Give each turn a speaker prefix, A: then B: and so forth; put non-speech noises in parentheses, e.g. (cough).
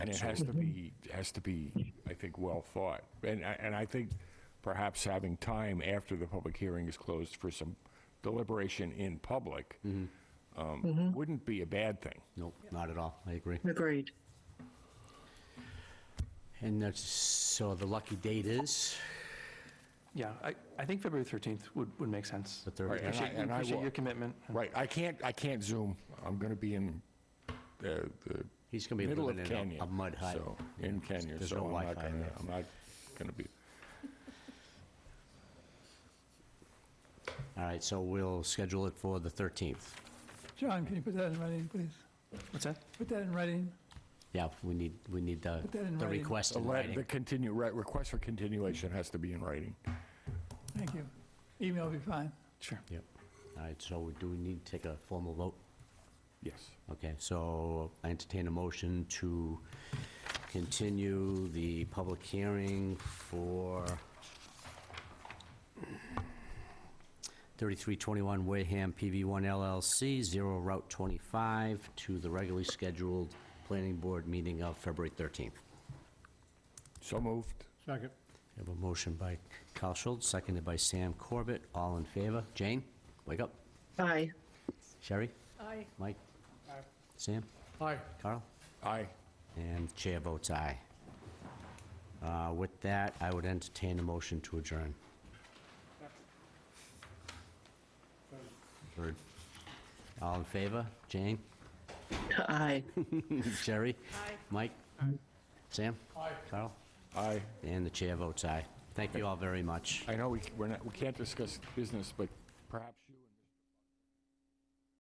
A: And it has to be, has to be, I think, well thought. And, I- and I think perhaps having time after the public hearing is closed for some deliberation in public
B: Mm-hmm.
A: um, wouldn't be a bad thing.
B: Nope, not at all. I agree.
C: Agreed.
B: And that's, so the lucky date is
D: Yeah, I, I think February 13th would, would make sense.
B: the 30th.
D: We
A: and I-
D: Appreciate, we
A: and I
D: appreciate
A: will-
D: your commitment.
A: Right, I can't, I can't Zoom. I'm going to be in uh, the
B: He's going to be
A: middle of
B: living
A: Kenya.
B: in a- a mud hut.
A: so- In Kenya,
B: There's
A: so
B: no
A: I'm not
B: Wi-Fi
A: going
B: there.
A: to, I'm not going to be,
B: All right, so we'll schedule it for the 13th.
E: John, can you put that in writing, please?
D: What's that?
E: Put that in writing.
B: Yeah, we need, we need the,
E: that in
B: the
E: writing.
B: request
A: the
B: in
A: le- the
B: writing.
A: continue, re- request for continuation
B: Mm-hmm.
A: has to be in writing.
E: Thank you. Email will be fine.
D: Sure.
B: Yep. All right, so do we need to take a formal vote?
A: Yes.
B: Okay, so I entertain a motion to continue the public hearing for 3321 Wareham PV1 LLC, 0 Route 25, to the regularly scheduled planning board meeting of February 13th.
A: So moved.
F: Second.
B: I have a motion by Carl Schultz, seconded by Sam Corbett. All in favor? Jane, wake up.
C: Aye.
B: Sherry? Aye. Mike? Sam?
F: Aye.
B: Carl?
A: Aye.
B: And chair votes aye. Uh, With that, I would entertain a motion to adjourn. Third. All in favor? (laughs) Jane?
C: Aye.
B: Sherry? Aye. Mike? Sam? Aye. Carl?
A: Aye.
B: And the chair votes aye. Thank you all very much.
A: I know we, we're not, we can't discuss business, but perhaps.